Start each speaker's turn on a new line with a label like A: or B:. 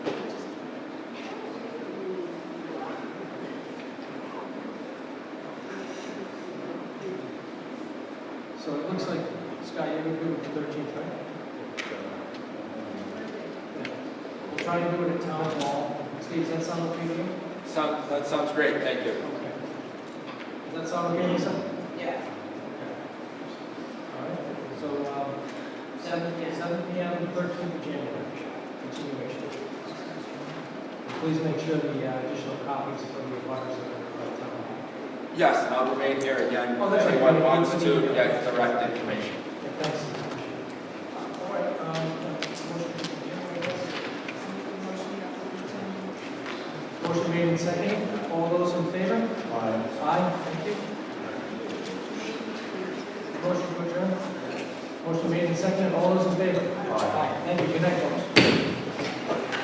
A: looks like, Scott, you're good with the thirteenth, right? Yeah. We'll try to do it at town hall. Steve, does that sound okay to you?
B: Sound, that sounds great, thank you.
A: Okay. Does that sound okay, Lisa?
C: Yeah,
A: All right, so, um, seven, seven P M, thirteenth of January, continuation. Please make sure the uh, additional copies from the abutters are at town hall.
B: Yes, and I'll remain here again,
A: Oh,
B: if
A: that's right.
B: anyone wants
A: Anthony,
B: to
A: yeah.
B: get direct information.
A: Yeah, Thanks. All right, um, motion to adjourn. Motion made and seconded. All those in favor? Aye, thank you. Motion to adjourn. Motion made and seconded. All those in favor? Aye. Thank you. Good night, folks.